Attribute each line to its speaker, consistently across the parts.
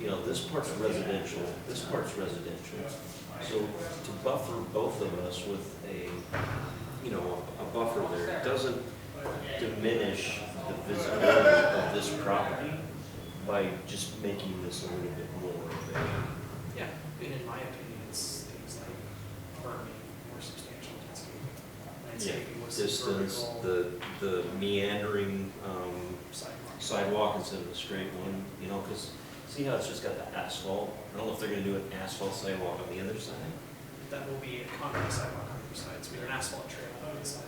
Speaker 1: no, this part's residential, this part's residential. So to buffer both of us with a, you know, a buffer there, it doesn't diminish the visibility of this property by just making this a little bit more of a,
Speaker 2: Yeah, and in my opinion, it's things like berming, more substantial landscaping. Landscaping was
Speaker 1: distance,
Speaker 2: vertical
Speaker 1: the, the meandering, um,
Speaker 2: sidewalks.
Speaker 1: sidewalk instead of a straight one, you know, because, see how it's just got the asphalt? I don't know if they're gonna do an asphalt sidewalk on the other side.
Speaker 2: That will be a concrete sidewalk on the other side, so we have an asphalt trail on the side.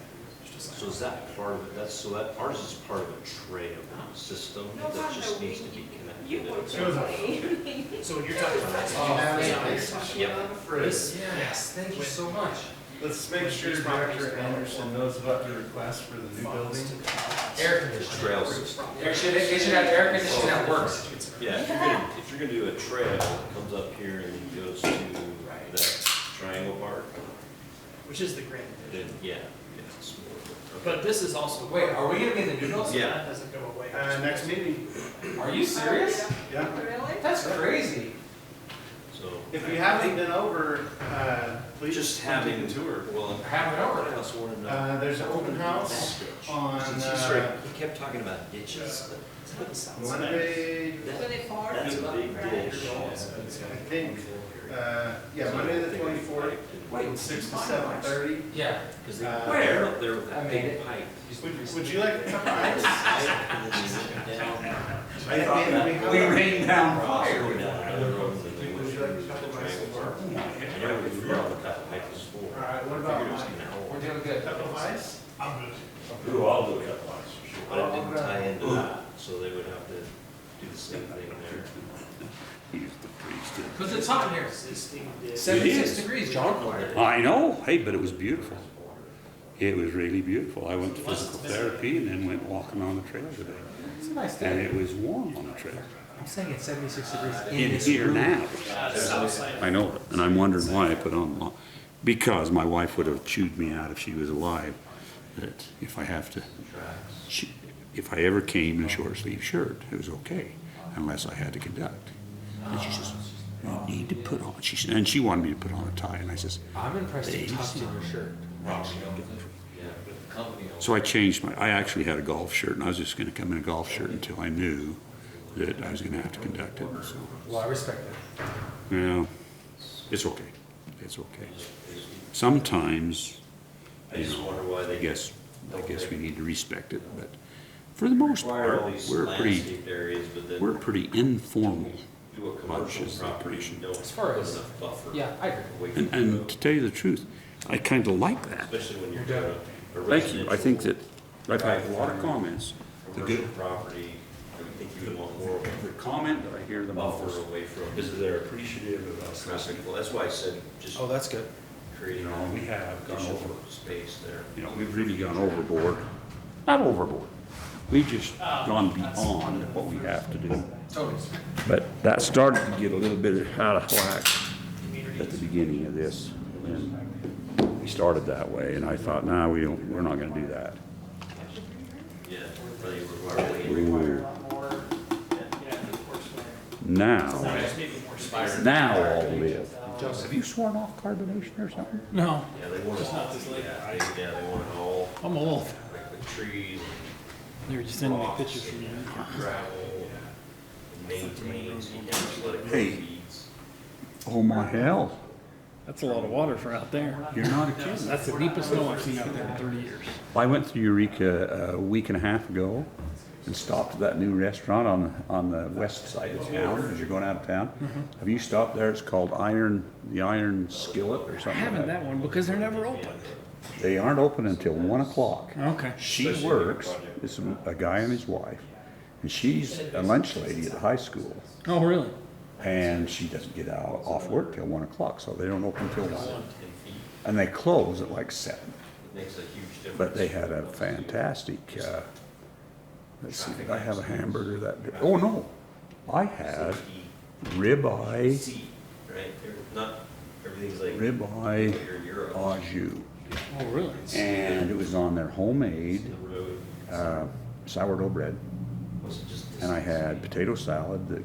Speaker 2: just a
Speaker 1: So is
Speaker 2: sidewalk.
Speaker 1: that part of it, that's, so that, ours is part of a trail system
Speaker 3: No
Speaker 1: that
Speaker 3: wonder
Speaker 1: just
Speaker 3: we-
Speaker 1: needs to be
Speaker 3: You
Speaker 1: connected.
Speaker 3: would
Speaker 1: up.
Speaker 3: totally.
Speaker 2: So when you're talking about
Speaker 4: Oh,
Speaker 2: asphalt,
Speaker 4: yeah.
Speaker 2: you're talking
Speaker 1: Yep.
Speaker 2: This-
Speaker 4: Yes, thank you so much.
Speaker 5: Let's make sure Dr. Anderson knows about your request for the new
Speaker 2: funds
Speaker 5: building.
Speaker 2: to the house.
Speaker 4: Air
Speaker 1: It's
Speaker 4: conditioning.
Speaker 1: Trail system.
Speaker 4: They
Speaker 2: Property.
Speaker 4: should, they should have air conditioning that works.
Speaker 1: Yeah, if you're gonna, if you're gonna do a trail, it comes up here and then goes to
Speaker 2: Right.
Speaker 1: that triangle part,
Speaker 2: Which is the grand
Speaker 1: then,
Speaker 2: vision.
Speaker 1: yeah, it's more.
Speaker 2: But this is also.
Speaker 4: Wait, are we gonna be in the
Speaker 2: So
Speaker 4: noodles?
Speaker 1: Yeah.
Speaker 2: That doesn't go away.
Speaker 5: Uh, next meeting,
Speaker 4: Are you serious?
Speaker 5: yeah.
Speaker 3: Really?
Speaker 4: That's crazy.
Speaker 1: So,
Speaker 5: If you haven't been over, uh, please.
Speaker 1: just
Speaker 5: come take
Speaker 1: having,
Speaker 5: a Tour.
Speaker 1: well,
Speaker 4: Have it
Speaker 1: I
Speaker 4: over.
Speaker 1: also wanna know.
Speaker 5: Uh, there's an open house on,
Speaker 1: Since he started,
Speaker 5: uh,
Speaker 1: he kept talking about ditches, but
Speaker 2: It's not the south side.
Speaker 5: Monday,
Speaker 1: that,
Speaker 3: Twenty-four.
Speaker 1: that's a big
Speaker 3: right?
Speaker 1: ditch.
Speaker 5: I think, uh, yeah, Monday the twenty-fourth, from six to seven thirty.
Speaker 4: Yeah.
Speaker 1: Because they,
Speaker 5: Uh,
Speaker 1: they're up there with
Speaker 4: I
Speaker 1: that
Speaker 4: made
Speaker 1: big
Speaker 4: it.
Speaker 1: pipe.
Speaker 5: Would, would you like to come by?
Speaker 1: And then they went down,
Speaker 5: I think we have
Speaker 4: We
Speaker 5: a-
Speaker 4: rained down
Speaker 1: across,
Speaker 4: fire.
Speaker 1: going down another road, and then they went
Speaker 5: Would you
Speaker 1: through
Speaker 5: like to
Speaker 1: the
Speaker 5: come to my
Speaker 1: triangle.
Speaker 5: store?
Speaker 1: I never really figured out what that pipe was for.
Speaker 5: All right, what
Speaker 1: I
Speaker 5: about
Speaker 1: figured it was
Speaker 5: mine?
Speaker 1: gonna
Speaker 4: We're
Speaker 1: hold,
Speaker 4: doing good.
Speaker 5: Cup of ice?
Speaker 6: Who all do cut lines, for sure.
Speaker 1: but it didn't tie into that, so they would have to do the same thing there.
Speaker 4: Cause it's hot in here.
Speaker 2: Existing ditch.
Speaker 4: Seventy-six degrees, John.
Speaker 6: I know, hey, but it was beautiful. It was really beautiful. I went to physical therapy and then went walking on the trail today.
Speaker 4: It's a nice
Speaker 6: And it was warm on the trail.
Speaker 4: I'm saying it's seventy-six degrees
Speaker 6: In here now.
Speaker 2: Uh, south side.
Speaker 6: I know it, and I'm wondering why I put on, lo- because my wife would have chewed me out if she was alive, that if I have to, she- if I ever came in a short sleeve shirt, it was okay, unless I had to conduct. And she says, you need to put on, she, said- and she wanted me to put on a tie, and I says,
Speaker 4: I'm impressed you tucked in your shirt.
Speaker 6: So I changed my, I actually had a golf shirt, and I was just gonna come in a golf shirt until I knew that I was gonna have to conduct it, so,
Speaker 4: Well, I respect that.
Speaker 6: yeah, it's okay, it's okay. Sometimes,
Speaker 1: I just wonder why
Speaker 6: I
Speaker 1: they get
Speaker 6: guess, I guess we need to respect it, but for the most
Speaker 1: require
Speaker 6: part,
Speaker 1: all these
Speaker 6: we're pretty,
Speaker 1: landscaped areas, but then
Speaker 6: we're pretty informal.
Speaker 1: do a commercial
Speaker 6: is the
Speaker 1: property, you
Speaker 6: commercial.
Speaker 1: don't
Speaker 4: As far
Speaker 1: put
Speaker 4: as-
Speaker 1: enough buffer.
Speaker 4: Yeah, I agree.
Speaker 1: away from
Speaker 6: And,
Speaker 1: the
Speaker 6: and
Speaker 1: road,
Speaker 6: to tell you the truth, I kinda like that.
Speaker 1: Especially when you're
Speaker 4: You're
Speaker 1: doing
Speaker 4: done.
Speaker 1: a
Speaker 6: Thank you, I think that,
Speaker 1: residential,
Speaker 6: I've had a lot of comments. The
Speaker 1: Commercial
Speaker 6: good,
Speaker 1: property, I would think you would want more of
Speaker 6: the comment that I hear
Speaker 1: a
Speaker 6: the
Speaker 1: buffer
Speaker 6: most
Speaker 1: away from
Speaker 6: is they're appreciative of us.
Speaker 1: traffic. Well, that's why I said just
Speaker 4: Oh, that's good.
Speaker 1: creating
Speaker 6: No, we
Speaker 1: an
Speaker 6: have gone
Speaker 1: additional
Speaker 6: over,
Speaker 1: space there.
Speaker 6: you know, we've really gone overboard. Not overboard. We've just gone beyond what we have to do.
Speaker 4: Totally.
Speaker 6: But that started to get a little bit out of whack at the
Speaker 2: Community.
Speaker 6: beginning of this. and We started that way and I thought, nah, we don't, we're not gonna do that.
Speaker 1: Yeah, really require way
Speaker 2: Require a
Speaker 6: Ooh,
Speaker 2: lot more, yeah, of course, where-
Speaker 6: Now,
Speaker 2: just maybe more space.
Speaker 6: Oh, now I'll live.
Speaker 2: Just
Speaker 6: Have you sworn off carbonation or something?
Speaker 7: No,
Speaker 1: Yeah, they want it all, yeah, they, yeah, they want it all,
Speaker 7: I'm old.
Speaker 1: like the trees,
Speaker 7: They were just sending me pictures from you.
Speaker 1: gravel, maintains, you can't just let it grow
Speaker 6: Hey.
Speaker 1: weeds.
Speaker 6: Oh my hell,
Speaker 7: That's a lot of water for out there.
Speaker 6: you're not a kid.
Speaker 7: That's the deepest snow I've seen out there in 30 years.
Speaker 6: I went through Eureka a week and a half ago and stopped at that new restaurant on, on the west side of town, as you're going out of town.
Speaker 7: Mm-hmm.
Speaker 6: Have you stopped there? It's called Iron, the Iron Skillet or
Speaker 7: I
Speaker 6: something like
Speaker 7: haven't
Speaker 6: that.
Speaker 7: that one because they're never open.
Speaker 6: They aren't open until one o'clock.
Speaker 7: Okay.
Speaker 6: She works, it's a a guy and his wife, and she's a lunch lady at the high school.
Speaker 7: Oh, really?
Speaker 6: And she doesn't get out, off work till one o'clock, so they don't open till one. And they close at like seven.
Speaker 1: It makes a huge difference.
Speaker 6: But they had a fantastic, uh, let's see, did I have a hamburger that day? Oh, no. I had ribeye,
Speaker 1: See, right, They're not, everything's like,
Speaker 6: ribeye
Speaker 1: here in Europe,
Speaker 6: au jus.
Speaker 7: Oh, really?
Speaker 6: And it was on their
Speaker 1: the
Speaker 6: homemade,
Speaker 1: road,
Speaker 6: uh, sourdough bread.
Speaker 1: was just.
Speaker 6: And I had potato salad that